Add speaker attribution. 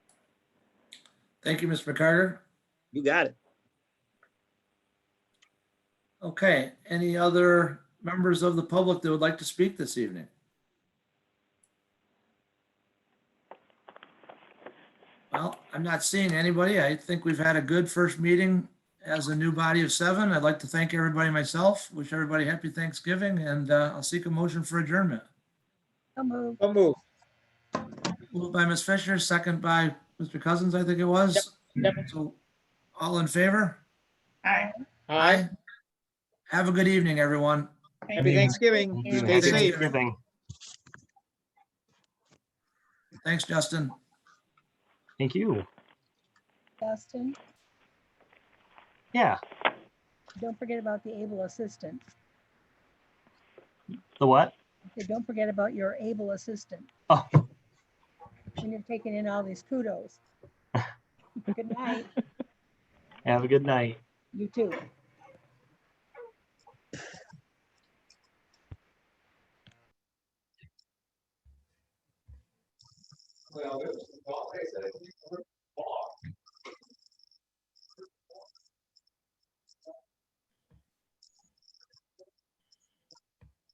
Speaker 1: Thank you, Ms. McCarter.
Speaker 2: You got it.
Speaker 1: Okay, any other members of the public that would like to speak this evening? Well, I'm not seeing anybody. I think we've had a good first meeting as a new body of seven. I'd like to thank everybody myself. Wish everybody happy Thanksgiving and uh, I'll seek a motion for adjournment.
Speaker 3: So moved.
Speaker 2: Don't move.
Speaker 1: Moved by Ms. Fisher, second by Mr. Cousins, I think it was.
Speaker 2: Yep,
Speaker 1: So all in favor?
Speaker 3: Aye.
Speaker 2: All right.
Speaker 1: Have a good evening, everyone.
Speaker 2: Happy Thanksgiving. Stay
Speaker 1: Happy
Speaker 2: safe.
Speaker 4: Thanksgiving.
Speaker 1: Thanks, Justin.
Speaker 4: Thank you.
Speaker 3: Justin,
Speaker 4: Yeah,
Speaker 3: don't forget about the able assistant.
Speaker 4: the what?
Speaker 3: Okay, Don't forget about your able assistant.
Speaker 4: Oh.
Speaker 3: When you're taking in all these kudos. Good night,
Speaker 4: Have a good night.
Speaker 3: you too.